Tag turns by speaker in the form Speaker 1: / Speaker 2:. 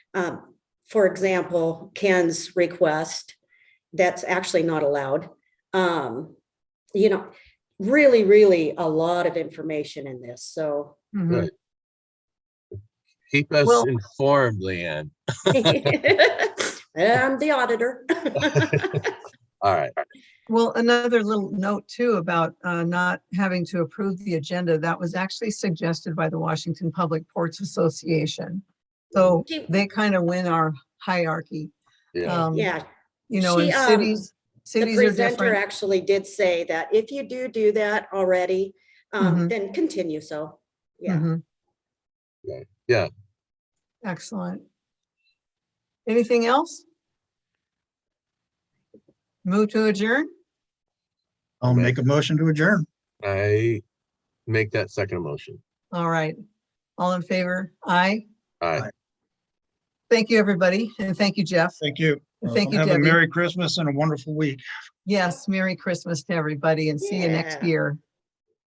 Speaker 1: um, for example, Ken's request, that's actually not allowed. Um, you know, really, really a lot of information in this, so.
Speaker 2: Mhm.
Speaker 3: Keep us
Speaker 2: Well-
Speaker 3: informed, Leanne.
Speaker 1: I'm the auditor.
Speaker 3: All right.
Speaker 2: Well, another little note too about uh, not having to approve the agenda, that was actually suggested by the Washington Public Ports Association. So
Speaker 1: She-
Speaker 2: they kind of win our hierarchy.
Speaker 3: Yeah.
Speaker 2: Um,
Speaker 1: Yeah,
Speaker 2: You know,
Speaker 1: she,
Speaker 2: in
Speaker 1: um,
Speaker 2: cities,
Speaker 1: the
Speaker 2: cities are
Speaker 1: presenter
Speaker 2: different.
Speaker 1: actually did say that if you do do that already, um,
Speaker 2: Mhm.
Speaker 1: then continue, so, yeah.
Speaker 2: Mhm.
Speaker 3: Right, yeah.
Speaker 2: Excellent. Anything else? Move to adjourn?
Speaker 4: I'll
Speaker 3: Okay.
Speaker 4: make a motion to adjourn.
Speaker 3: I make that second motion.
Speaker 2: All right. All in favor? Aye.
Speaker 3: All
Speaker 4: Aye.
Speaker 3: right.
Speaker 2: Thank you, everybody. And thank you, Jeff.
Speaker 4: Thank you. Uh,
Speaker 2: And thank you,
Speaker 4: Have a
Speaker 2: Debbie.
Speaker 4: Merry Christmas and a wonderful week.
Speaker 2: Yes, Merry Christmas to everybody and see you next
Speaker 1: Yeah.
Speaker 2: year.